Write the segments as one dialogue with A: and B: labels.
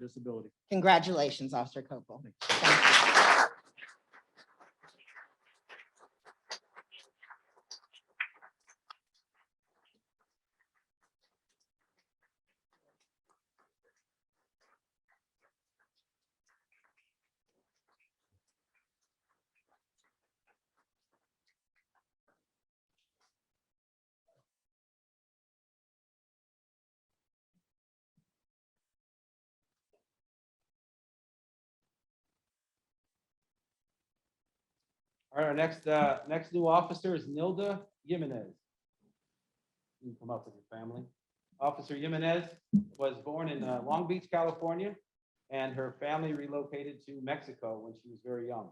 A: disability.
B: Congratulations, Officer Copel.
A: All right, our next, uh, next new officer is Nilda Jimenez. You can come up with your family. Officer Jimenez was born in uh, Long Beach, California, and her family relocated to Mexico when she was very young.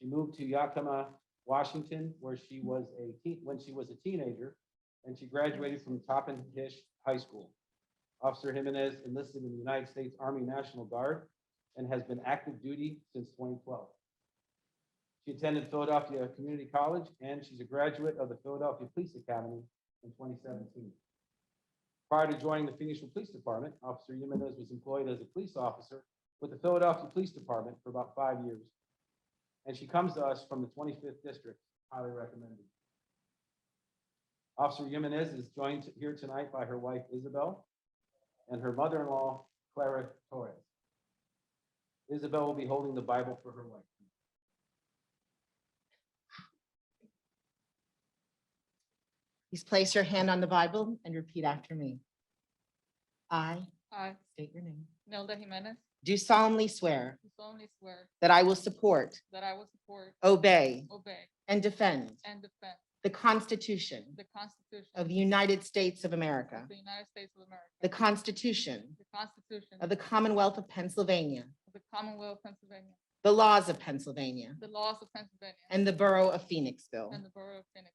A: She moved to Yakima, Washington, where she was a, teen when she was a teenager, and she graduated from Toppin Hish High School. Officer Jimenez enlisted in the United States Army National Guard and has been active duty since 2012. She attended Philadelphia Community College, and she's a graduate of the Philadelphia Police Academy in 2017. Prior to joining the Phoenixville Police Department, Officer Jimenez was employed as a police officer with the Philadelphia Police Department for about five years. And she comes to us from the 25th District, highly recommended. Officer Jimenez is joined here tonight by her wife Isabel and her mother-in-law Clara Torres. Isabel will be holding the Bible for her wife.
B: Please place your hand on the Bible and repeat after me. I
C: I,
B: state your name.
C: Nelda Jimenez,
B: Do solemnly swear
C: do solemnly swear
B: that I will support,
C: that I will support,
B: obey,
C: obey,
B: and defend
C: and defend
B: the Constitution
C: the Constitution
B: of the United States of America,
C: of the United States of America,
B: the Constitution
C: the Constitution
B: of the Commonwealth of Pennsylvania,
C: of the Commonwealth of Pennsylvania,
B: the laws of Pennsylvania,
C: the laws of Pennsylvania,
B: and the Borough of Phoenixville.
C: and the Borough of Phoenixville.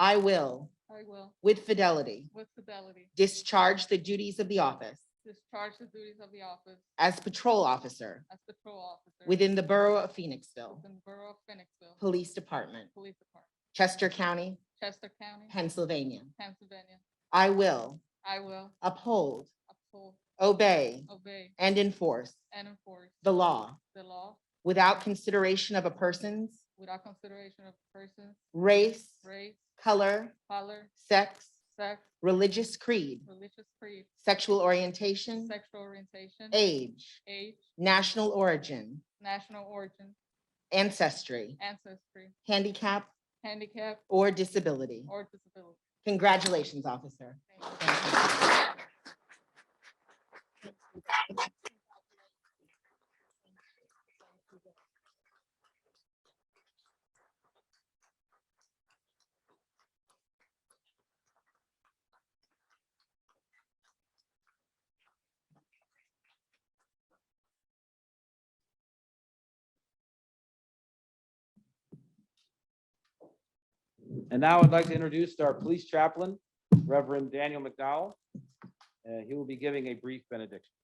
B: I will,
C: I will,
B: with fidelity,
C: with fidelity,
B: discharge the duties of the office
C: discharge the duties of the office
B: as patrol officer
C: as patrol officer
B: within the Borough of Phoenixville
C: within the Borough of Phoenixville
B: Police Department,
C: Police Department,
B: Chester County,
C: Chester County,
B: Pennsylvania.
C: Pennsylvania.
B: I will
C: I will
B: uphold,
C: uphold,
B: obey,
C: obey,
B: and enforce
C: and enforce
B: the law
C: the law
B: without consideration of a person's
C: without consideration of persons,
B: race,
C: race,
B: color,
C: color,
B: sex,
C: sex,
B: religious creed,
C: religious creed,
B: sexual orientation,
C: sexual orientation,
B: age,
C: age,
B: national origin,
C: national origin,
B: ancestry,
C: ancestry,
B: handicap,
C: handicap,
B: or disability.
C: or disability.
B: Congratulations, officer.
C: Thank you.
B: Thank you.
A: And now I'd like to introduce our police chaplain, Reverend Daniel McDowell. Uh, He will be giving a brief benediction.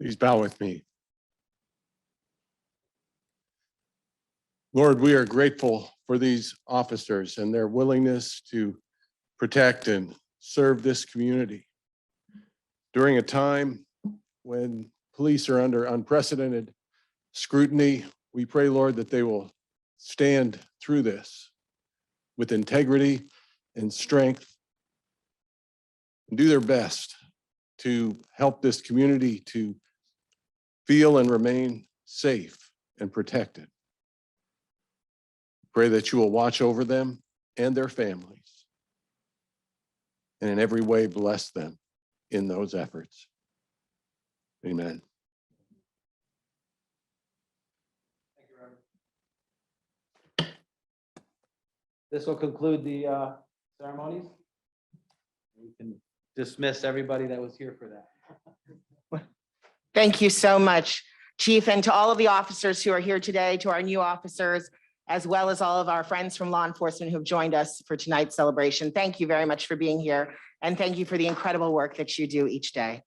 D: Please bow with me. Lord, we are grateful for these officers and their willingness to protect and serve this community during a time when police are under unprecedented scrutiny. We pray, Lord, that they will stand through this with integrity and strength. and Do their best to help this community to feel and remain safe and protected. Pray that you will watch over them and their families and in every way bless them in those efforts. Amen.
A: Thank you, Reverend. This will conclude the uh, ceremonies. We can dismiss everybody that was here for that.
B: Thank you so much, Chief, and to all of the officers who are here today, to our new officers, as well as all of our friends from law enforcement who've joined us for tonight's celebration. Thank you very much for being here, and thank you for the incredible work that you do each day.